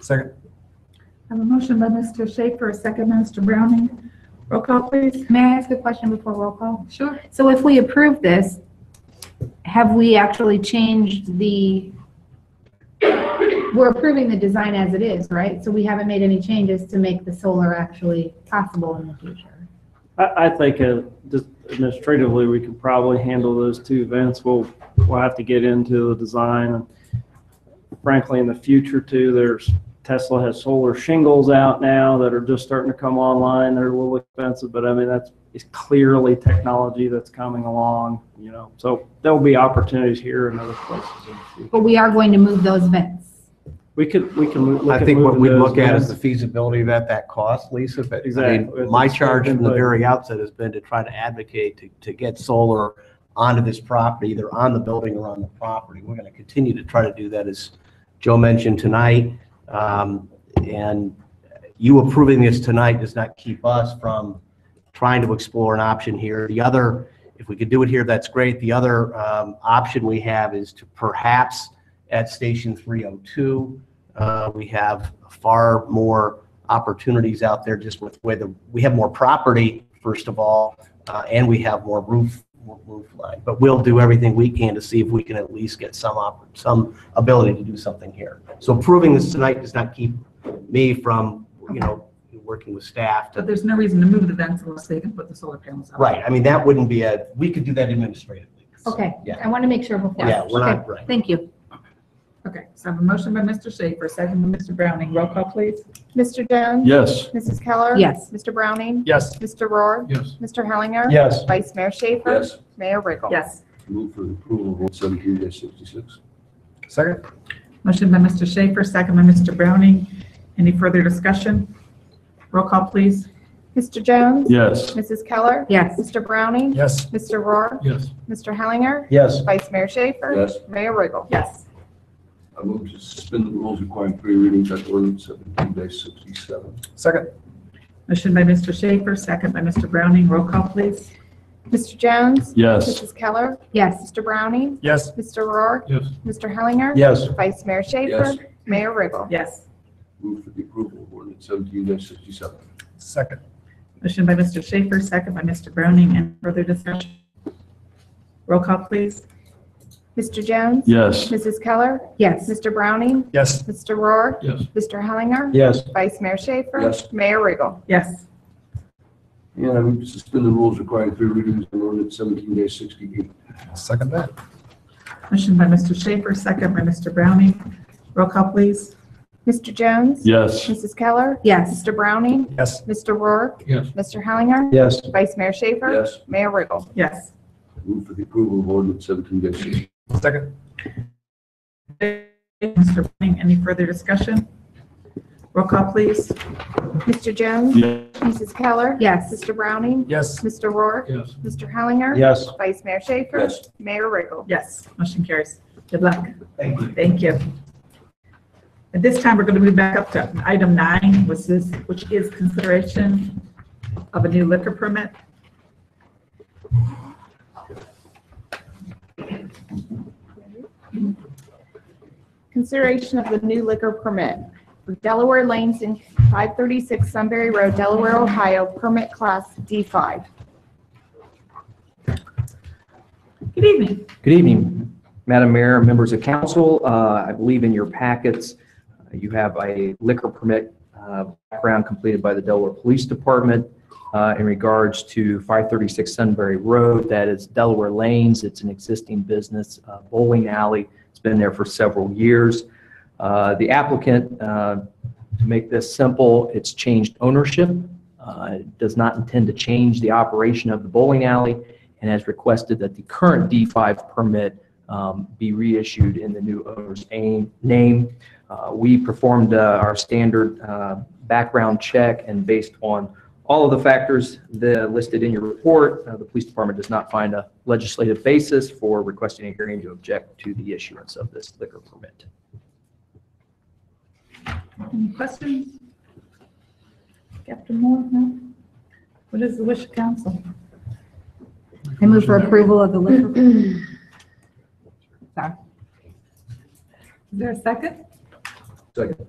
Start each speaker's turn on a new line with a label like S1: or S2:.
S1: Second.
S2: I have a motion by Mr. Schaefer, a second by Mr. Browning. Roll call, please.
S3: May I ask a question before roll call?
S2: Sure.
S3: So if we approve this, have we actually changed the, we're approving the design as it is, right? So we haven't made any changes to make the solar actually possible in the future.
S4: I, I think uh, just administratively, we could probably handle those two events. We'll, we'll have to get into the design. and Frankly, in the future too, there's, Tesla has solar shingles out now that are just starting to come online. They're a little expensive, but I mean, that's, it's clearly technology that's coming along, you know? So there'll be opportunities here and other places in the future.
S3: But we are going to move those vents.
S4: We could, we can look
S1: I
S4: at
S1: think what
S4: moving
S1: we
S4: those
S1: look at is
S4: down.
S1: the feasibility of that, that cost, Lisa, but I
S4: Exactly.
S1: mean, my charge from the
S4: Input.
S1: very outset has been to try to advocate to, to get solar onto this property, either on the building or on the property. We're going to continue to try to do that, as Joe mentioned tonight. Um, And you approving this tonight does not keep us from trying to explore an option here. The other, if we could do it here, that's great. The other um, option we have is to perhaps at Station 302, uh, we have far more opportunities out there just with whether, we have more property, first of all, uh, and we have more roof, more roof line. But we'll do everything we can to see if we can at least get some, op- some ability to do something here. So approving this tonight does not keep me from, you know, working with staff
S2: But
S1: to,
S2: there's no reason to move the vents unless they can put the solar panels up.
S1: right, I mean, that wouldn't be a, we could do that administratively.
S3: Okay,
S1: Yeah.
S3: I want to make sure before.
S1: Yeah, we're
S3: Okay,
S1: not, right.
S3: Thank you.
S2: Okay, so I have a motion by Mr. Schaefer, second by Mr. Browning. Roll call, please.
S5: Mr. Jones?
S4: Yes.
S5: Mrs. Keller?
S3: Yes.
S5: Mr. Browning?
S4: Yes.
S5: Mr. Rohr?
S6: Yes.
S5: Mr. Hellinger?
S6: Yes.
S5: Vice Mayor Schaefer?
S6: Yes.
S5: Mayor Riggle?
S2: Yes.
S6: Move for the approval of one seventeen sixty-six.
S1: Second?
S2: Motion by Mr. Schaefer, second by Mr. Browning. Any further discussion? Roll call, please.
S5: Mr. Jones?
S4: Yes.
S5: Mrs. Keller?
S3: Yes.
S5: Mr. Browning?
S6: Yes.
S5: Mr. Rohr?
S6: Yes.
S5: Mr. Hellinger?
S6: Yes.
S5: Vice Mayor Schaefer?
S6: Yes.
S5: Mayor Riggle?
S2: Yes.
S6: I move to suspend the rules requiring three readings on ordinance seventeen sixty-seven.
S1: Second.
S2: Motion by Mr. Schaefer, second by Mr. Browning. Roll call, please.
S5: Mr. Jones?
S4: Yes.
S5: Mrs. Keller?
S3: Yes.
S5: Mr. Browning?
S4: Yes.
S5: Mr. Rohr?
S6: Yes.
S5: Mr. Hellinger?
S6: Yes.
S5: Vice Mayor Schaefer?
S6: Yes.
S5: Mayor Riggle?
S2: Yes.
S6: Move for the approval of ordinance seventeen sixty-seven.
S1: Second.
S2: Motion by Mr. Schaefer, second by Mr. Browning. Any further discussion? Roll call, please.
S5: Mr. Jones?
S4: Yes.
S5: Mrs. Keller?
S3: Yes.
S5: Mr. Browning?
S4: Yes.
S5: Mr. Rohr?
S6: Yes.
S5: Mr. Hellinger?
S4: Yes.
S5: Vice Mayor Schaefer?
S6: Yes.
S5: Mayor Riggle?
S2: Yes.
S6: And I move to suspend the rules requiring three readings on ordinance seventeen sixty-eight.
S1: Second that.
S2: Motion by Mr. Schaefer, second by Mr. Browning. Roll call, please.
S5: Mr. Jones?
S4: Yes.
S5: Mrs. Keller?
S3: Yes.
S5: Mr. Browning?
S1: Yes.
S5: Mr. Rourke?
S6: Yes.
S5: Mr. Hellinger?
S4: Yes.
S5: Vice Mayor Schaefer?
S6: Yes.
S5: Mayor Riggle?
S2: Yes.
S6: Move for the approval of ordinance seventeen sixty-eight.
S1: Second.
S2: Mr. Browning, any further discussion? Roll call, please.
S5: Mr. Jones? Mrs. Keller?
S3: Yes.
S5: Mr. Browning?
S1: Yes.
S5: Mr. Rourke?
S6: Yes.
S5: Mr. Hellinger?
S4: Yes.
S5: Vice Mayor Schaefer?
S6: Yes.
S5: Mayor Riggle?
S2: Yes, motion carries. Good luck.
S1: Thank you.
S2: Thank you. At this time, we're going to move back up to item nine, which is, which is consideration of a new liquor permit.
S5: Consideration of the new liquor permit. Delaware Lanes in 536 Sunbury Road, Delaware, Ohio, permit class D5.
S2: Good evening.
S7: Good evening, Madam Mayor, members of council. Uh, I believe in your packets, uh, you have a liquor permit uh, background completed by the Delaware Police Department uh, in regards to 536 Sunbury Road, that is Delaware Lanes. It's an existing business uh, bowling alley. It's been there for several years. Uh, The applicant, uh, to make this simple, it's changed ownership, uh, does not intend to change the operation of the bowling alley and has requested that the current D5 permit um, be reissued in the new owner's aim- name. Uh, We performed uh, our standard uh, background check, and based on all of the factors that are listed in your report, uh, the police department does not find a legislative basis for requesting a hearing to object to the issuance of this liquor permit.
S2: Any questions? Captain Moore, no? What is the wish of council?
S3: I move for approval of the liquor.
S2: Is there a second?
S6: Second.